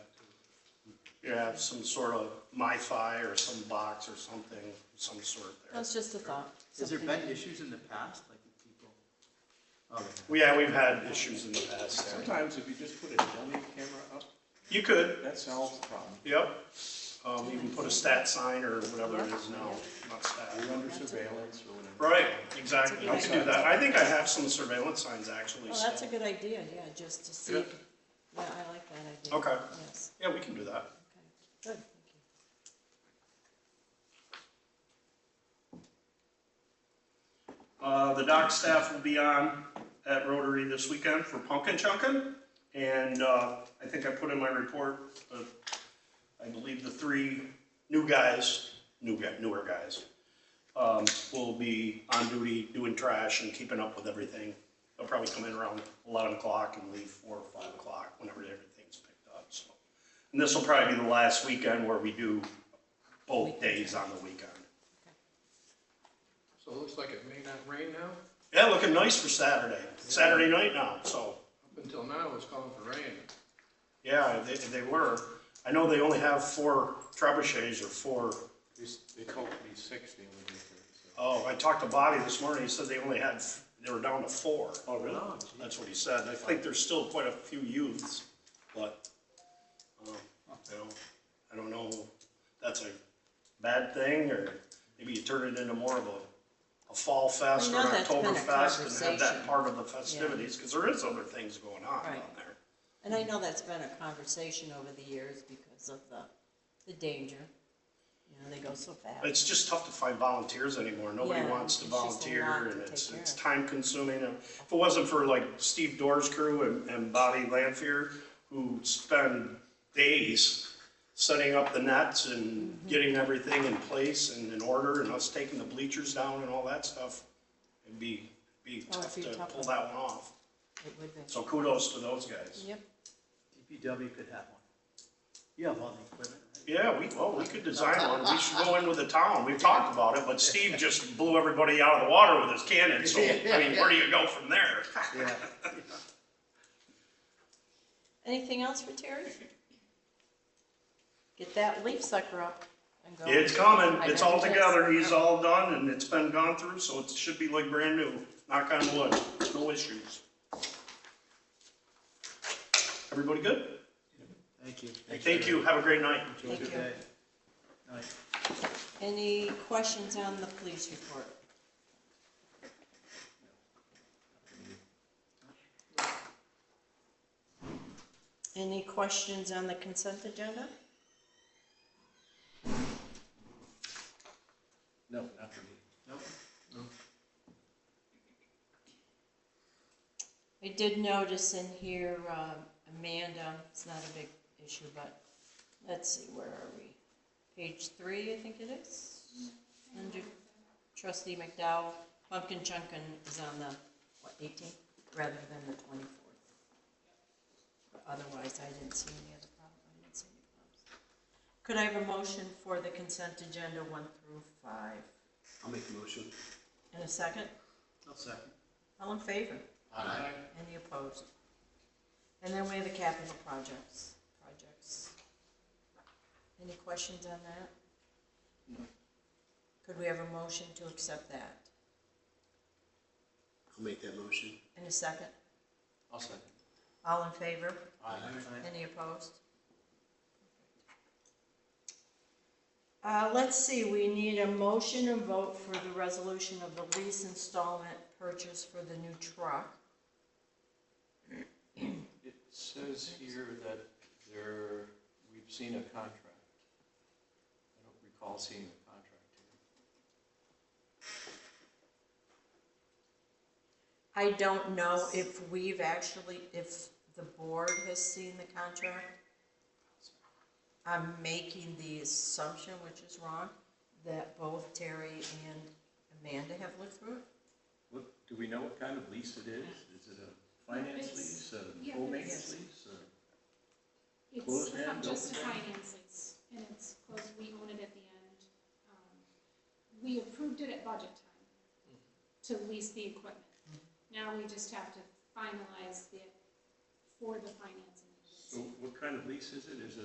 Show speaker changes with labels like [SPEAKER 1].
[SPEAKER 1] you have some sort of MiFi or some box or something, some sort there.
[SPEAKER 2] That's just a thought.
[SPEAKER 3] Has there
[SPEAKER 2] something.
[SPEAKER 3] been issues in the past, like with people? Oh,
[SPEAKER 1] Well, Yeah, we've had issues in the past. yeah.
[SPEAKER 4] Sometimes if you just put a dummy camera up,
[SPEAKER 1] You could,
[SPEAKER 4] that solves the problem.
[SPEAKER 1] yep. Um, you can put a stat sign or whatever it is now, not stat.
[SPEAKER 4] You're under surveillance or whatever.
[SPEAKER 1] Right, exactly, you can do that. I think I have some surveillance signs actually
[SPEAKER 2] Well, Oh, that's a
[SPEAKER 1] still.
[SPEAKER 2] good idea, yeah, just to see,
[SPEAKER 1] Yeah.
[SPEAKER 2] yeah, I like that idea.
[SPEAKER 1] Okay.
[SPEAKER 2] Yes,
[SPEAKER 1] Yeah, we can do that.
[SPEAKER 2] okay, good, thank you.
[SPEAKER 1] Uh, the dock staff will be on at Rotary this weekend for pumpkin chunkin'. And, uh, I think I put in my report, uh, I believe the three new guys, new guy, newer guys, um, will be on duty doing trash and keeping up with everything. They'll probably come in around eleven o'clock and leave four or five o'clock whenever everything's picked up, so. And this will probably be the last weekend where we do both days on the weekend.
[SPEAKER 5] So it looks like it may not rain now.
[SPEAKER 1] Yeah, looking nice for Saturday. Saturday night now, so,
[SPEAKER 5] Up until now, it was calling for rain.
[SPEAKER 1] yeah, they, they were. I know they only have four trebuchets or four,
[SPEAKER 4] They s- They told me six the other day. so-
[SPEAKER 1] oh, I talked to Bobby this morning, he said they only had, f- they were down to four.
[SPEAKER 4] Oh, really?
[SPEAKER 1] That's what he said. I think there's still quite a few youths, but, um, you know, I don't know, if that's a bad thing, or maybe you turn it into more of a, a fall fest or
[SPEAKER 2] know that's been a
[SPEAKER 1] Oktoberfest and have that
[SPEAKER 2] conversation.
[SPEAKER 1] part of the festivities, because there is other things going on down
[SPEAKER 2] Right.
[SPEAKER 1] there.
[SPEAKER 2] And I know that's been a conversation over the years because of the, the danger, you know, they go so fast.
[SPEAKER 1] It's just tough to find volunteers anymore. Nobody
[SPEAKER 2] Yeah,
[SPEAKER 1] wants to
[SPEAKER 2] it's just a lot
[SPEAKER 1] volunteer
[SPEAKER 2] to
[SPEAKER 1] and it's,
[SPEAKER 2] take
[SPEAKER 1] it's
[SPEAKER 2] care
[SPEAKER 1] time consuming. And If it wasn't for like Steve Doerr's crew and, and Bobby Lanfear, who spend days setting up the nets and
[SPEAKER 2] Mm-hmm.
[SPEAKER 1] getting everything in place and in order and us taking the bleachers down and all that stuff, it'd be, be
[SPEAKER 2] Oh, it'd
[SPEAKER 1] tough
[SPEAKER 2] be
[SPEAKER 1] to
[SPEAKER 2] tough.
[SPEAKER 1] pull that one off.
[SPEAKER 2] It would be,
[SPEAKER 1] So kudos to those guys.
[SPEAKER 2] yep,
[SPEAKER 3] DPW E could have one. You have all the equipment, right?
[SPEAKER 1] Yeah, we, well, we could design one. We should go in with the town. We've talked about it, but Steve just blew everybody out of the water with his cannon, so, I mean, where do you go from there?
[SPEAKER 3] Yeah.
[SPEAKER 2] anything else for Terry? Get that leaf sucker up and go.
[SPEAKER 1] It's coming.
[SPEAKER 2] I
[SPEAKER 1] It's
[SPEAKER 2] know
[SPEAKER 1] all
[SPEAKER 2] it is.
[SPEAKER 1] together. He's all done and it's been gone through, so it should be like brand new. Knock on wood. No issues. Everybody good?
[SPEAKER 3] Thank you.
[SPEAKER 1] Thank you. Have a great night.
[SPEAKER 3] Enjoy your
[SPEAKER 2] Thank you.
[SPEAKER 3] day. Night.
[SPEAKER 2] Any questions on the police report? Any questions on the consent agenda?
[SPEAKER 4] No, not for me.
[SPEAKER 3] Nope.
[SPEAKER 2] I did notice in here, um, Amanda, it's not a big issue, but let's see, where are we? Page three, I think it is. Under trustee McDowell, Pumpkin Chunkin is on the, what, 18th rather than the 24th. Otherwise, I didn't see any other problem, I didn't see any problems. Could I have a motion for the consent agenda one through five?
[SPEAKER 3] I'll make a motion.
[SPEAKER 2] In a second?
[SPEAKER 3] I'll second.
[SPEAKER 2] All in favor?
[SPEAKER 3] Aye.
[SPEAKER 2] Any opposed? And then we have the capital projects, projects. Any questions on that? Could we have a motion to accept that?
[SPEAKER 6] I'll make that motion.
[SPEAKER 2] In a second?
[SPEAKER 6] I'll second.
[SPEAKER 2] All in favor?
[SPEAKER 6] Aye.
[SPEAKER 2] Any opposed? Uh, let's see, we need a motion and vote for the resolution of the lease installment purchase for the new truck.
[SPEAKER 4] It says here that there, we've seen a contract. I don't recall seeing a contract here.
[SPEAKER 2] I don't know if we've actually, if the board has seen the contract. I'm making the assumption, which is wrong, that both Terry and Amanda have looked through it.
[SPEAKER 4] What, do we know what kind of lease it is? Is it a finance
[SPEAKER 7] It's-
[SPEAKER 4] lease, a
[SPEAKER 7] yeah,
[SPEAKER 4] full maintenance
[SPEAKER 2] it's-
[SPEAKER 4] lease? a-
[SPEAKER 7] It's
[SPEAKER 4] Closed end,
[SPEAKER 7] just a
[SPEAKER 4] open
[SPEAKER 7] finance lease, and it's closed, we own it at the end. Um, We approved it at budget time to lease the equipment. Now we just have to finalize it for the financing.
[SPEAKER 4] So what kind of lease is it? Is it